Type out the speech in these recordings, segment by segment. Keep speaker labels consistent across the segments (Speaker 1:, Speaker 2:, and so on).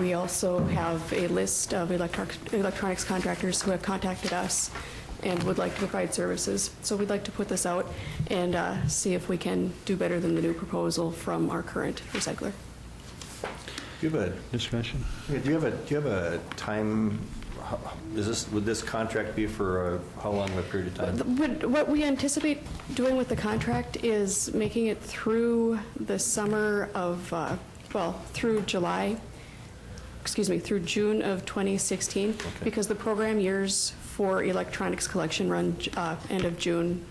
Speaker 1: we also have a list of electro- electronics contractors who have contacted us and would like to provide services. So we'd like to put this out and uh, see if we can do better than the new proposal from our current recycler.
Speaker 2: Do you have
Speaker 3: Discussion?
Speaker 2: a, yeah, do you have a, do you have a time, how- is this, would this contract be for uh, how long of a period of
Speaker 1: The-
Speaker 2: time?
Speaker 1: What what we anticipate doing with the contract is making it through the summer of, uh, well, through July, excuse me, through June of 2016, because the program years for electronics collection run uh, end of June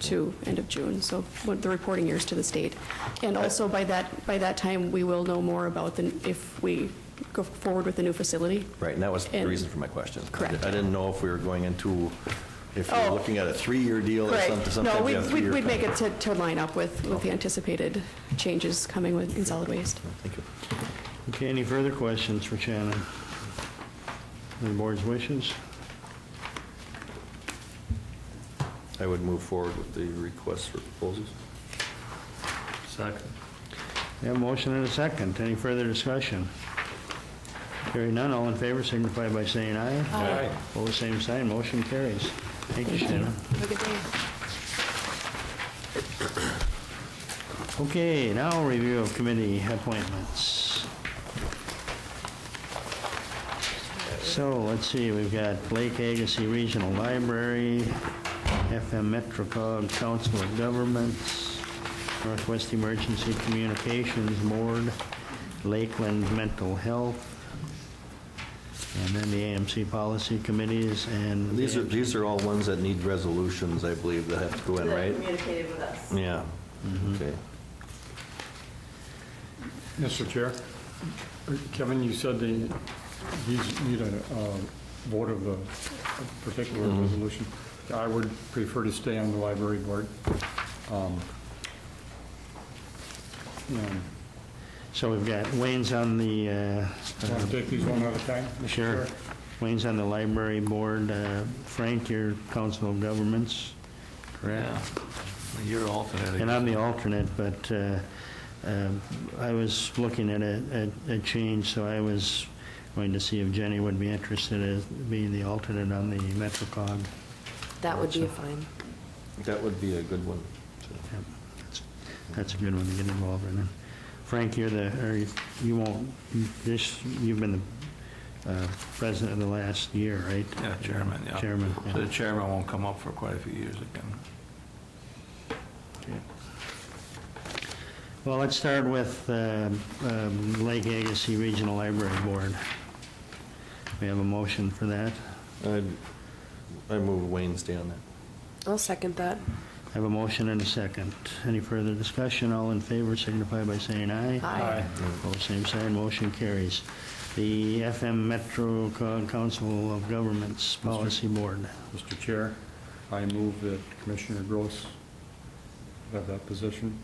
Speaker 1: to end of June, so what- the reporting years to the state. And also, by that, by that time, we will know more about the- if we go forward with the new facility.
Speaker 2: Right, and that was the
Speaker 1: And-
Speaker 2: reason for my question. I
Speaker 1: Correct.
Speaker 2: di- I didn't know if we were going into, if you're
Speaker 1: Oh.
Speaker 2: looking at a three-year deal or something,
Speaker 1: Right. No,
Speaker 2: sometimes you
Speaker 1: we'd-
Speaker 2: have a
Speaker 1: we'd,
Speaker 2: three-year
Speaker 1: we'd make it
Speaker 2: contract.
Speaker 1: to, to line up with, with the anticipated changes coming with, in solid waste.
Speaker 2: Thank you.
Speaker 3: Okay, any further questions for Shannon? The board's wishes?
Speaker 2: I would move forward with the request for proposals.
Speaker 4: Second.
Speaker 3: We have a motion and a second. Any further discussion? Hearing none, all in favor signify by saying aye.
Speaker 2: Aye.
Speaker 3: Opposed, same sign, motion carries. Thank you, Shannon. Okay, now review of committee appointments. So, let's see, we've got Lake Agassiz Regional Library, FM Metropog Council of Governments, Northwest Emergency Communications Board, Lakeland Mental Health, and then the AMC Policy Committees and...
Speaker 2: These are, these are all ones that need resolutions, I believe, that have to go in,
Speaker 5: that
Speaker 2: right? Mm-hmm.
Speaker 5: communicated with us.
Speaker 2: Yeah, okay.
Speaker 4: Mr. Chair, Kevin, you said they, these need a uh, vote of the particular resolution. I would prefer to stay on the library board. Um, um,
Speaker 3: So we've got Wayne's on the... uh,
Speaker 4: Want to take these one at a time? Mr.
Speaker 3: Sure.
Speaker 4: Chair?
Speaker 3: Wayne's on the library board. Uh, Frank, your council of governments, correct?
Speaker 6: Yeah, you're alternate.
Speaker 3: And I'm the alternate, but uh, um, I was looking at a a- a change, so I was going to see if Jenny would be interested in being the alternate on the MetroCog.
Speaker 7: That would be fine.
Speaker 2: That would be a good one. so.
Speaker 3: Yep. That's- That's a good one to get involved in. Frank, you're the, or you- you won't, this, you've been the uh, president of the last year, right?
Speaker 6: Yeah, chairman, yeah.
Speaker 3: Chairman. yeah.
Speaker 6: So the chairman won't come up for quite a few years again.
Speaker 3: Well, let's start with uh, um, Lake Agassiz Regional Library Board. We have a motion for that.
Speaker 2: I'd- I move Wayne stay on that.
Speaker 7: I'll second that.
Speaker 3: I have a motion and a second. Any further discussion? All in favor signify by saying aye.
Speaker 7: Aye.
Speaker 3: Opposed, same sign, motion carries. The FM Metro Co- Council of Governments Policy Board.
Speaker 4: Mr. Chair, I move that Commissioner Gross have that position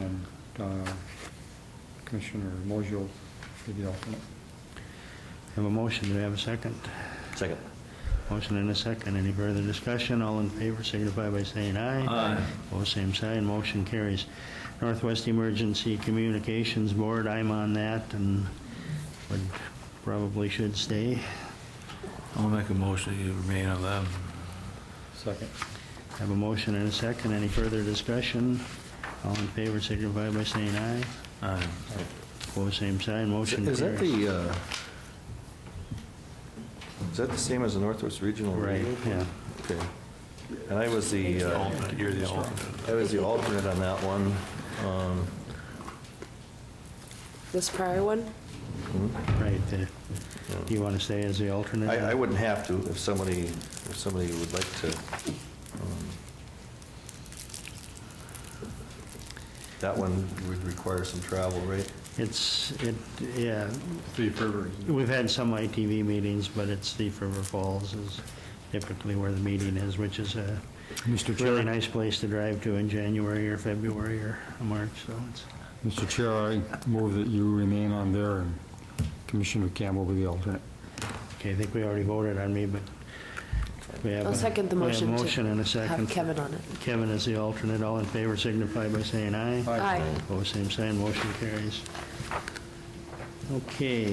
Speaker 4: and uh, Commissioner Mojo be the alternate.
Speaker 3: Have a motion, do we have a second?
Speaker 2: Second.
Speaker 3: Motion and a second. Any further discussion? All in favor signify by saying aye.
Speaker 6: Aye.
Speaker 3: Opposed, same sign, motion carries. Northwest Emergency Communications Board, I'm on that and would, probably should stay.
Speaker 6: I'll make a motion that you remain on that.
Speaker 4: Second.
Speaker 3: Have a motion and a second. Any further discussion? All in favor signify by saying aye.
Speaker 6: Aye.
Speaker 3: Opposed, same sign, motion carries.
Speaker 2: Is that the, uh, is that the same as the Northwest Regional?
Speaker 3: Right,
Speaker 2: Radio?
Speaker 3: yeah.
Speaker 2: Okay. And I was the, uh,
Speaker 6: Alternate, You're the alternate.
Speaker 2: I was the alternate on that one. Um,
Speaker 7: This prior one?
Speaker 3: Right, the- do you want to stay as the alternate?
Speaker 2: I I wouldn't have to if somebody, if somebody would like to. um, That one would require some travel, right?
Speaker 3: It's, it, yeah,
Speaker 4: Three February.
Speaker 3: we've had some ITV meetings, but it's Thief River Falls is typically where the meeting is, which is a
Speaker 4: Mr.
Speaker 3: really nice place to drive to in January or February or March, so it's,
Speaker 4: Mr. Chair, I move that you remain on there and Commissioner Campbell be the alternate.
Speaker 3: okay, I think we already voted on me, but we have.
Speaker 7: I'll
Speaker 3: a-
Speaker 7: second the
Speaker 3: we have a
Speaker 7: motion to
Speaker 3: motion and a second.
Speaker 7: Have Kevin on it.
Speaker 3: Kevin is the alternate. All in favor signify by saying aye.
Speaker 7: Aye.
Speaker 3: Opposed, same sign, motion carries. Okay,